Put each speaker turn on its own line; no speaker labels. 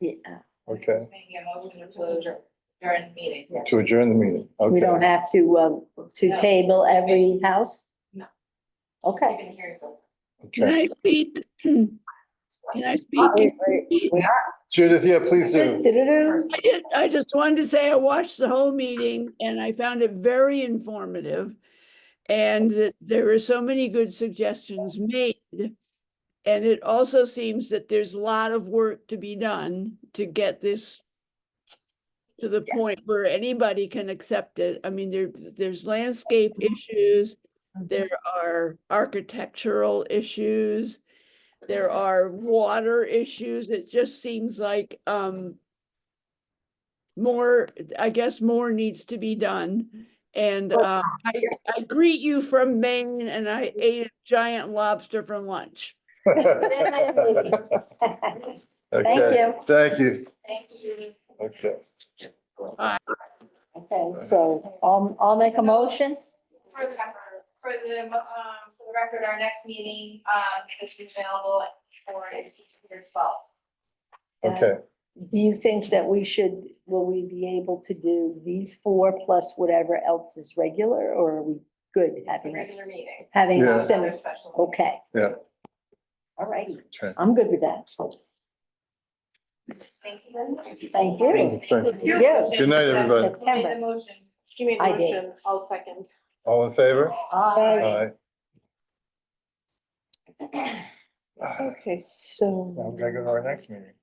Yeah, uh,
Okay,
Making a motion to adjourn the meeting.
to adjourn the meeting, okay.
We don't have to, uh, to
No.
table every house?
No.
Okay.
You can hear yourself.
Can
Okay.
I speak? Can I speak?
Judith, yeah, please do.
Do-do-do.
I just, I just wanted to say I watched the whole meeting and I found it very informative. And that there were so many good suggestions made. And it also seems that there's a lot of work to be done to get this to the point where anybody can accept it. I mean, there, there's landscape issues. There are architectural issues. There are water issues. It just seems like, um, more, I guess more needs to be done. And, uh, I, I greet you from Maine and I ate a giant lobster for lunch.
Thank
Okay,
you.
thank you,
Thank you.
okay.
Okay, so I'll, I'll make a motion.
For the, for the, um, for the record, our next meeting, um, is available for it's as well.
Okay,
Do you think that we should, will we be able to do these four plus whatever else is regular, or are we good
It's a
having,
regular
s-
meeting.
having
Yeah.
Another
similar?
special. meeting.
Okay,
yeah.
all right,
okay.
I'm good with that.
Thank you.
Thank you.
Thank you.
Yeah.
Good night, everybody.
Who Made the motion.
She made a
I did.
motion, I'll second.
All in favor?
Aye.
Aye.
Okay, so.
I'm gonna go to our next meeting.